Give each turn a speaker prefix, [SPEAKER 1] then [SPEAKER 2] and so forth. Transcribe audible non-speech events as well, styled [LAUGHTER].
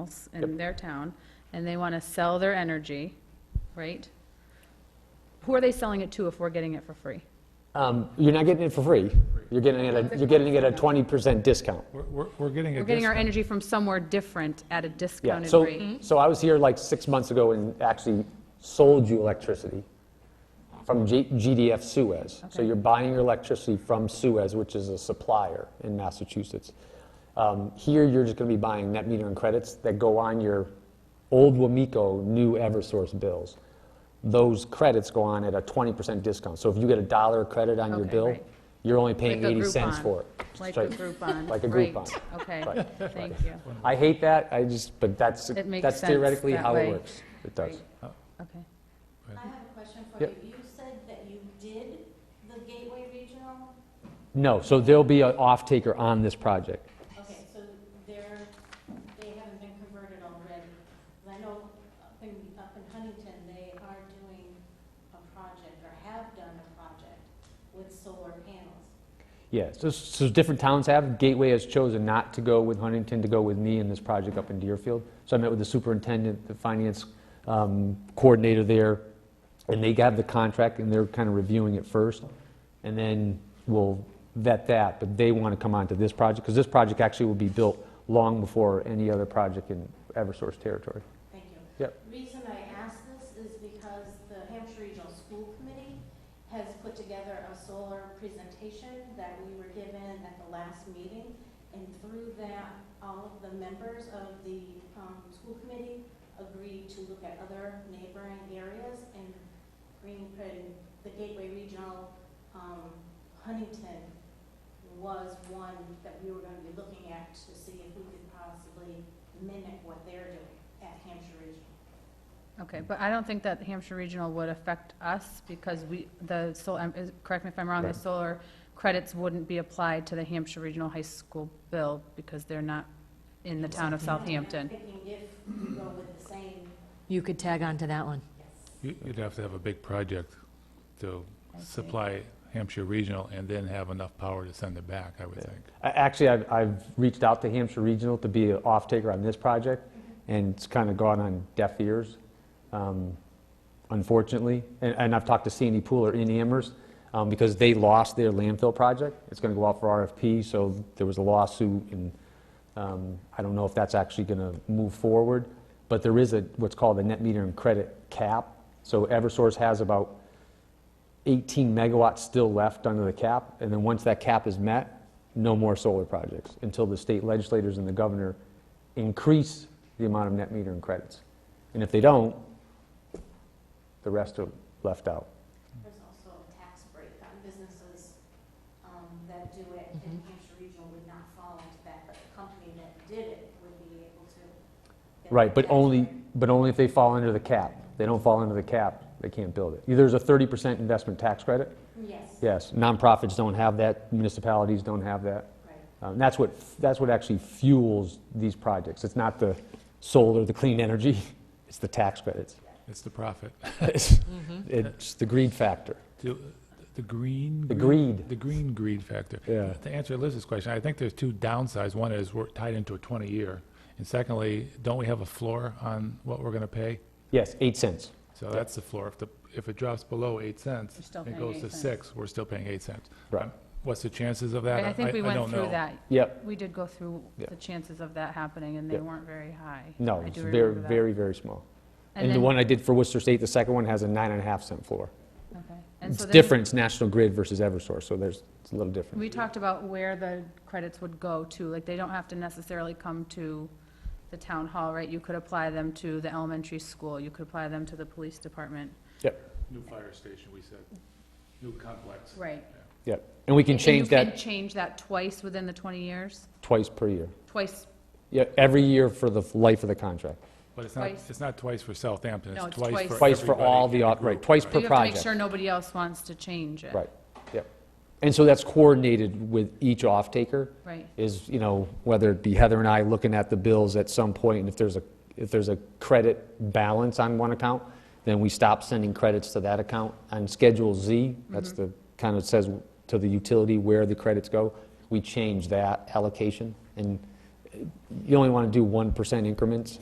[SPEAKER 1] professionals in their town, and they want to sell their energy, right? Who are they selling it to if we're getting it for free?
[SPEAKER 2] Um, You're not getting it for free. You're getting it, at a- you're getting it at a 20% discount.
[SPEAKER 3] We're- We're, we're getting a
[SPEAKER 1] We're getting our
[SPEAKER 3] discount.
[SPEAKER 1] energy from somewhere different at a
[SPEAKER 2] Yeah,
[SPEAKER 1] discounted
[SPEAKER 2] so,
[SPEAKER 3] Mm-hmm.
[SPEAKER 1] rate. Mm-hmm.
[SPEAKER 2] so I was here like six months ago and actually sold you electricity from G- GDF Suez. So
[SPEAKER 1] Okay.
[SPEAKER 2] you're buying your electricity from Suez, which is a supplier in Massachusetts. Um, Here, you're just going to be buying net metering credits that go on your old Wamico, new Eversource bills. Those credits go on at a 20% discount. So if you get a dollar credit on your
[SPEAKER 1] Okay,
[SPEAKER 2] bill,
[SPEAKER 1] right.
[SPEAKER 2] you're only paying
[SPEAKER 1] Like a
[SPEAKER 2] 80 cents
[SPEAKER 1] Groupon.
[SPEAKER 2] for it.
[SPEAKER 1] Like a
[SPEAKER 2] Sorry.
[SPEAKER 1] Groupon.
[SPEAKER 2] Like a
[SPEAKER 1] right.
[SPEAKER 2] Groupon.
[SPEAKER 1] Okay,
[SPEAKER 2] Right,
[SPEAKER 1] thank you.
[SPEAKER 2] I hate that, I just, but that's,
[SPEAKER 1] It makes
[SPEAKER 2] that's
[SPEAKER 1] sense
[SPEAKER 2] theoretically
[SPEAKER 1] that
[SPEAKER 2] how it
[SPEAKER 1] way.
[SPEAKER 2] works. It does.
[SPEAKER 1] Okay.
[SPEAKER 4] I have a question for
[SPEAKER 2] Yep.
[SPEAKER 4] you. You said that you did the Gateway Regional.
[SPEAKER 2] No, so there'll be an off-taker on this project.
[SPEAKER 4] Okay, so they're, they haven't been converted already. 'Cause I know up in, up in Huntington, they are doing a project or have done a project with solar panels.
[SPEAKER 2] Yeah, so, so different towns have, Gateway has chosen not to go with Huntington, to go with me in this project up in Deerfield. So I met with the superintendent, the finance um, coordinator there, and they got the contract, and they're kind of reviewing it first. And then we'll vet that, but they want to come on to this project, because this project actually will be built long before any other project in Eversource territory.
[SPEAKER 4] Thank you.
[SPEAKER 2] Yep.
[SPEAKER 4] Reason I ask this is because the Hampshire Regional School Committee has put together a solar presentation that we were given at the last meeting. And through that, all of the members of the um, school committee agreed to look at other neighboring areas and Green, and the Gateway Regional, um, Huntington was one that we were going to be looking at to see if we could possibly mimic what they're doing at Hampshire Regional.
[SPEAKER 1] Okay, but I don't think that the Hampshire Regional would affect us because we, the, sol- um, is- correct me if I'm wrong, the
[SPEAKER 2] Right.
[SPEAKER 1] solar credits wouldn't be applied to the Hampshire Regional High School bill because they're not in the town of
[SPEAKER 4] I'm
[SPEAKER 1] Southampton.
[SPEAKER 4] thinking if we go with the same,
[SPEAKER 5] You could tag on to that one.
[SPEAKER 3] You- You'd have to have a big project to
[SPEAKER 1] see.
[SPEAKER 3] supply Hampshire Regional and then have enough power to send it back, I would think.
[SPEAKER 2] A- Actually, I've, I've reached out to Hampshire Regional to be an off-taker on this project, and it's kind of gone on deaf ears, um, unfortunately. And, and I've talked to C and E Pooler in Amherst, um, because they lost their landfill project. It's going to go out for RFP, so there was a lawsuit, and um, I don't know if that's actually going to move forward. But there is a, what's called a net meter and credit cap. So Eversource has about 18 megawatts still left under the cap, and then once that cap is met, no more solar projects, until the state legislators and the governor increase the amount of net metering credits. And if they don't, the rest are left out.
[SPEAKER 4] there's also a tax break on businesses um, that do it, and
[SPEAKER 1] Mm-hmm.
[SPEAKER 4] Hampshire Regional would not fall into that, but the company that did it would be able to. get the
[SPEAKER 2] Right, but
[SPEAKER 4] tax
[SPEAKER 2] only,
[SPEAKER 4] break.
[SPEAKER 2] but only if they fall under the cap. They don't fall under the cap, they can't build it. There's a 30% investment tax credit,
[SPEAKER 4] Yes,
[SPEAKER 2] yes, nonprofits don't have that, municipalities don't have that.
[SPEAKER 4] right.
[SPEAKER 2] Um, That's what, that's what actually fuels these projects. It's not the solar, the clean energy, [LAUGHS] it's the tax credits.
[SPEAKER 3] It's
[SPEAKER 2] [LAUGHS]
[SPEAKER 3] the profit. [LAUGHS]
[SPEAKER 2] It's it's the greed factor.
[SPEAKER 3] The the green.
[SPEAKER 2] The
[SPEAKER 3] greed-
[SPEAKER 2] greed.
[SPEAKER 3] The green greed factor.
[SPEAKER 2] Yeah.
[SPEAKER 3] To answer Liz's question, I think there's two downsides. One is we're tied into a 20-year. And secondly, don't we have a floor on what we're going to pay?
[SPEAKER 2] Yes, eight cents.
[SPEAKER 3] So that's the floor. If the, if it drops below eight cents,
[SPEAKER 1] You're still
[SPEAKER 3] and it
[SPEAKER 1] paying
[SPEAKER 3] goes to
[SPEAKER 1] eight cents.
[SPEAKER 3] six, we're still paying eight cents.
[SPEAKER 2] Right.
[SPEAKER 3] Um, What's the chances of that?
[SPEAKER 1] I think we went
[SPEAKER 3] don't know.
[SPEAKER 1] through that.
[SPEAKER 2] Yep.
[SPEAKER 1] We did go through
[SPEAKER 2] Yeah.
[SPEAKER 1] the chances of that happening, and they
[SPEAKER 2] Yep.
[SPEAKER 1] weren't very high.
[SPEAKER 2] No,
[SPEAKER 1] I
[SPEAKER 2] it's
[SPEAKER 1] do
[SPEAKER 2] very,
[SPEAKER 1] remember that.
[SPEAKER 2] very, very small.
[SPEAKER 1] And
[SPEAKER 2] And the
[SPEAKER 1] then-
[SPEAKER 2] one I did for Worcester State, the second one has a nine and a half cent floor.
[SPEAKER 1] Okay. And
[SPEAKER 2] It's
[SPEAKER 1] so then
[SPEAKER 2] different, it's National Grid versus Eversource, so there's, it's a little different.
[SPEAKER 1] We talked about where the credits would go to, like, they don't have to necessarily come to the town hall, right? You could apply them to the elementary school, you could apply them to the police department.
[SPEAKER 3] New fire station, we said. New complex.
[SPEAKER 1] Right.
[SPEAKER 2] Yep. And we can change
[SPEAKER 1] You
[SPEAKER 2] that
[SPEAKER 1] can change that twice within the 20 years?
[SPEAKER 2] twice per year.
[SPEAKER 1] Twice,
[SPEAKER 2] Yeah, every year for the f- life of the contract.
[SPEAKER 3] But it's not,
[SPEAKER 1] Twice.
[SPEAKER 3] it's not twice for Southampton,
[SPEAKER 1] No, it's
[SPEAKER 3] it's twice for
[SPEAKER 1] twice.
[SPEAKER 3] everybody.
[SPEAKER 2] Twice for all the,
[SPEAKER 3] in
[SPEAKER 2] op- right,
[SPEAKER 3] group,
[SPEAKER 2] twice per
[SPEAKER 1] you have to make
[SPEAKER 2] project.
[SPEAKER 1] sure nobody else wants to change it.
[SPEAKER 2] Right, yep. And so that's coordinated with each off-taker.
[SPEAKER 1] Right.
[SPEAKER 2] Is, you know, whether it be Heather and I looking at the bills at some point, and if there's a, if there's a credit balance on one account, then we stop sending credits to that account. On Schedule Z, that's the, kind of says to the utility where the credits go, we change that allocation. And you only want to do 1% increments.